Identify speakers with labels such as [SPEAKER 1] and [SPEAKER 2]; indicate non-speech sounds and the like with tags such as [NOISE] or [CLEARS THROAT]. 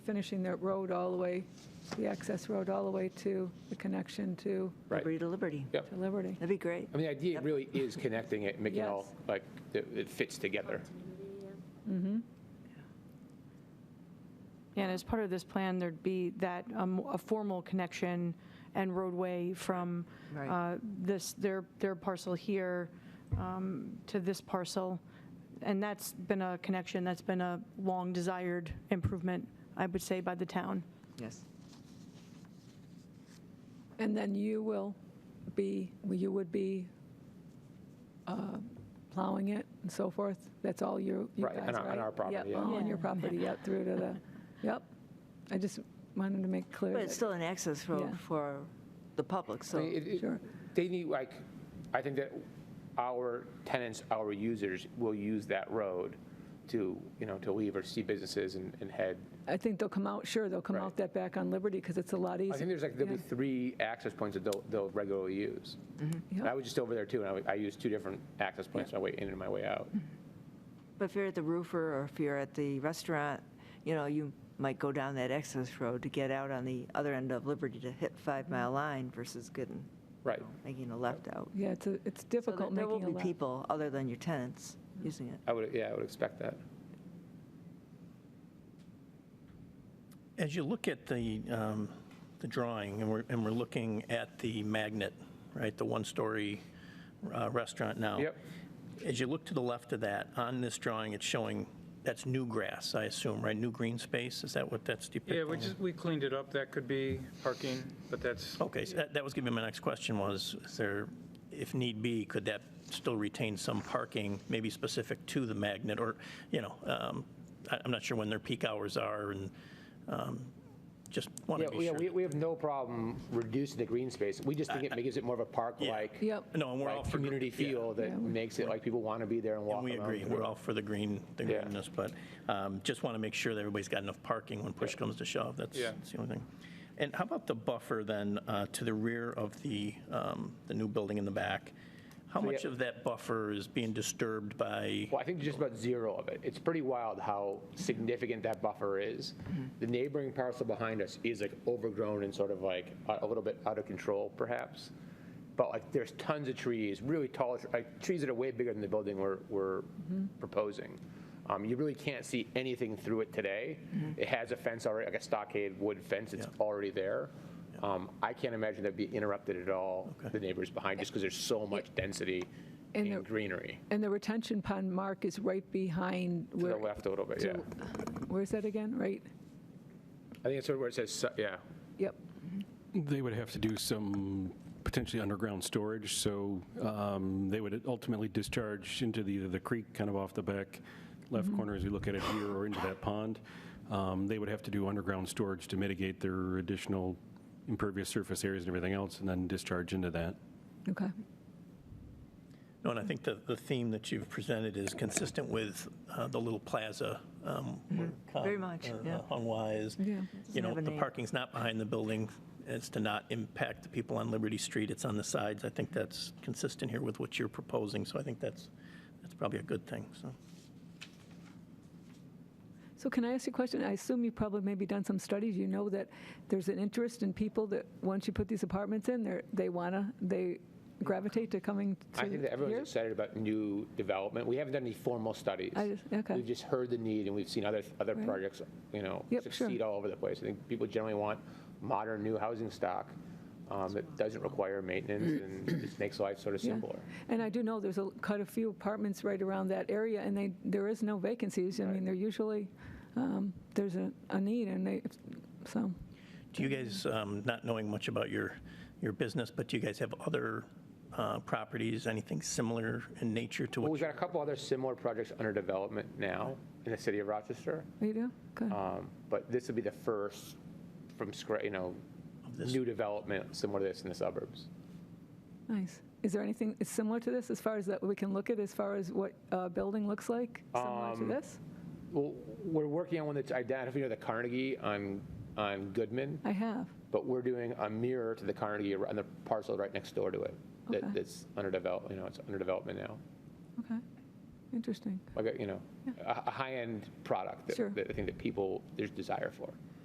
[SPEAKER 1] finishing that road all the way, the access road all the way to the connection to
[SPEAKER 2] Right.
[SPEAKER 3] Liberty to Liberty.
[SPEAKER 2] Yep.
[SPEAKER 1] to Liberty.
[SPEAKER 3] That'd be great.
[SPEAKER 2] I mean, the idea really is connecting it, and making it all,
[SPEAKER 1] Yes.
[SPEAKER 2] like, it it fits together.
[SPEAKER 1] Mm-hmm.
[SPEAKER 4] And as part of this plan, there'd be that, um, a formal connection and roadway from
[SPEAKER 3] Right.
[SPEAKER 4] uh, this, their, their parcel here um, to this parcel. And that's been a connection, that's been a long desired improvement, I would say, by the town.
[SPEAKER 3] Yes.
[SPEAKER 1] And then you will be, you would be uh, plowing it and so forth? That's all you, you
[SPEAKER 2] Right,
[SPEAKER 1] guys,
[SPEAKER 2] on
[SPEAKER 1] right?
[SPEAKER 2] our- on our property, yeah.
[SPEAKER 1] all on your
[SPEAKER 4] Yeah.
[SPEAKER 1] property, yeah, through to
[SPEAKER 2] [LAUGHS]
[SPEAKER 1] the, yep. I just wanted to make clear.
[SPEAKER 3] But it's
[SPEAKER 1] that-
[SPEAKER 3] still an access road
[SPEAKER 1] Yeah.
[SPEAKER 3] for the public,
[SPEAKER 2] I
[SPEAKER 3] so.
[SPEAKER 2] mean, it- it-
[SPEAKER 1] Sure.
[SPEAKER 2] They need, like, I think that our tenants, our users will use that road to, you know, to leave or see businesses and and head.
[SPEAKER 1] I think they'll come out, sure, they'll come
[SPEAKER 2] Right.
[SPEAKER 1] out that back on Liberty because it's a lot easier.
[SPEAKER 2] I think there's like, there'll be
[SPEAKER 1] Yeah.
[SPEAKER 2] three access points that they'll, they'll regularly use. And I
[SPEAKER 1] Mm-hmm. Yep.
[SPEAKER 2] was just over there too, and I, would- I used two different access points, my way in and my way
[SPEAKER 1] Mm-hmm.
[SPEAKER 2] out.
[SPEAKER 3] But if you're at the roofer or if you're at the restaurant, you know, you might go down that access road to get out on the other end of Liberty to hit Five
[SPEAKER 1] Mm-hmm.
[SPEAKER 3] Mile Line versus Gooden,
[SPEAKER 2] Right.
[SPEAKER 3] making a left out.
[SPEAKER 1] Yeah, it's, a- it's
[SPEAKER 3] So there-
[SPEAKER 1] difficult making
[SPEAKER 3] There
[SPEAKER 1] a
[SPEAKER 3] will
[SPEAKER 1] left. Mm-hmm.
[SPEAKER 3] be people, other than your tenants, using it.
[SPEAKER 2] I would, yeah, I would expect that.
[SPEAKER 5] As you look at the, um, the drawing, and we're, and we're looking at the magnet, right, the one-story uh, restaurant now.
[SPEAKER 2] Yep.
[SPEAKER 5] As you look to the left of that, on this drawing, it's showing, that's new grass, I assume, right? New green space, is that what that's depicting?
[SPEAKER 6] Yeah, we just, we cleaned it up. That could be parking, but that's,
[SPEAKER 5] Okay, so that, that was going to be my next question was, is there, if need be, could that still retain some parking, maybe specific to the magnet? Or, you know, um, I- I'm not sure when their peak hours are and um, just want
[SPEAKER 2] Yeah,
[SPEAKER 5] to be
[SPEAKER 2] we-
[SPEAKER 5] sure.
[SPEAKER 2] we, we have no problem reducing the green space. We just think it gives it more of a park-like.
[SPEAKER 1] Yep.
[SPEAKER 5] No, and we're all
[SPEAKER 2] like
[SPEAKER 5] for.
[SPEAKER 2] community
[SPEAKER 5] yeah,
[SPEAKER 2] feel that makes it like people want to be there and walk
[SPEAKER 5] And we
[SPEAKER 2] around.
[SPEAKER 5] agree, we're all for the green, the
[SPEAKER 2] Yeah.
[SPEAKER 5] greenness, but um, just want to make sure that everybody's got enough parking when push comes to shove. That's
[SPEAKER 6] Yeah.
[SPEAKER 5] that's the only thing. And how about the buffer then uh, to the rear of the, um, the new building in the back? How
[SPEAKER 2] So, yeah.
[SPEAKER 5] much of that buffer is being disturbed by?
[SPEAKER 2] Well, I think just about zero of it. It's pretty wild how significant that buffer is.
[SPEAKER 1] Mm-hmm.
[SPEAKER 2] The neighboring parcel behind us is like overgrown and sort of like a a little bit out of control perhaps. But like there's tons of trees, really tall, tr- like trees that are way bigger than the building we're, we're
[SPEAKER 1] Mm-hmm.
[SPEAKER 2] proposing. Um, You really can't see anything through it today.
[SPEAKER 1] Mm-hmm.
[SPEAKER 2] It has a fence already, like a stockade wood fence, it's
[SPEAKER 5] Yeah.
[SPEAKER 2] already there. Um, I can't imagine that'd be interrupted at all, the neighbors behind, just because there's so much density
[SPEAKER 1] And
[SPEAKER 2] and
[SPEAKER 1] the-
[SPEAKER 2] greenery.
[SPEAKER 1] And the retention pond mark is right behind
[SPEAKER 2] To the
[SPEAKER 1] where,
[SPEAKER 2] left a little bit,
[SPEAKER 1] to-
[SPEAKER 2] yeah.
[SPEAKER 1] where's that again? Right?
[SPEAKER 2] I think it's sort of where it says, su- yeah,
[SPEAKER 1] Yep.
[SPEAKER 7] They would have to do some potentially underground storage, so um, they would ultimately discharge into the, the creek, kind of off the back left corner as we look at it here, or into that pond. Um, They would have to do underground storage to mitigate their additional impervious surface areas and everything else, and then discharge into that.
[SPEAKER 1] Okay.
[SPEAKER 5] No, and I think the, the theme that you've presented is consistent with uh, the little plaza. um, where Con-
[SPEAKER 3] Mm-hmm. Very much,
[SPEAKER 5] uh,
[SPEAKER 3] yeah.
[SPEAKER 5] On Y is, you know,
[SPEAKER 3] have a
[SPEAKER 5] the
[SPEAKER 3] name.
[SPEAKER 5] parking's not behind the building, it's to not impact the people on Liberty Street, it's on the sides. I think that's consistent here with what you're proposing, so I think that's, that's probably a good thing, so.
[SPEAKER 1] So can I ask you a question? I assume you've probably maybe done some studies. You know that there's an interest in people that, once you put these apartments in, they're, they wanna, they gravitate to coming to
[SPEAKER 2] I think that everyone's
[SPEAKER 1] here?
[SPEAKER 2] excited about new development. We haven't done any formal studies.
[SPEAKER 1] I just- okay.
[SPEAKER 2] We've just heard the need, and we've seen other, other
[SPEAKER 1] Right.
[SPEAKER 2] projects, you know,
[SPEAKER 1] Yep, sure.
[SPEAKER 2] succeed all over the place. I think people generally want modern, new housing stock um, that doesn't require maintenance
[SPEAKER 1] [CLEARS THROAT]
[SPEAKER 2] and just makes life sort of
[SPEAKER 1] Yeah.
[SPEAKER 2] simpler.
[SPEAKER 1] And I do know there's a, quite a few apartments right around that area, and they, there is no vacancies. I mean, they're usually, um, there's a, a need, and they, so,
[SPEAKER 5] Do you guys, um, not knowing much about your, your business, but do you guys have other uh, properties, anything similar in nature to
[SPEAKER 2] Well,
[SPEAKER 5] what?
[SPEAKER 2] we've
[SPEAKER 5] you-
[SPEAKER 2] got a couple other similar projects under development now in the city of Rochester,
[SPEAKER 1] you do? Good.
[SPEAKER 2] um, but this would be the first from scratch, you know,
[SPEAKER 5] this.
[SPEAKER 2] new development similar to this in the suburbs.
[SPEAKER 1] Nice. Is there anything similar to this, as far as that we can look at, as far as what a building looks like, similar to
[SPEAKER 2] Um,
[SPEAKER 1] this?
[SPEAKER 2] Well, we're working on one that's identical to the Carnegie on, on Goodman,
[SPEAKER 1] I have.
[SPEAKER 2] but we're doing a mirror to the Carnegie on the parcel right next door to it.
[SPEAKER 1] Okay.
[SPEAKER 2] That, that's under develop, you know, it's under development now.
[SPEAKER 1] Okay. Interesting.
[SPEAKER 2] Like, a, you know, a, a high-end product
[SPEAKER 1] Sure.
[SPEAKER 2] that, that I think that people, there's desire for.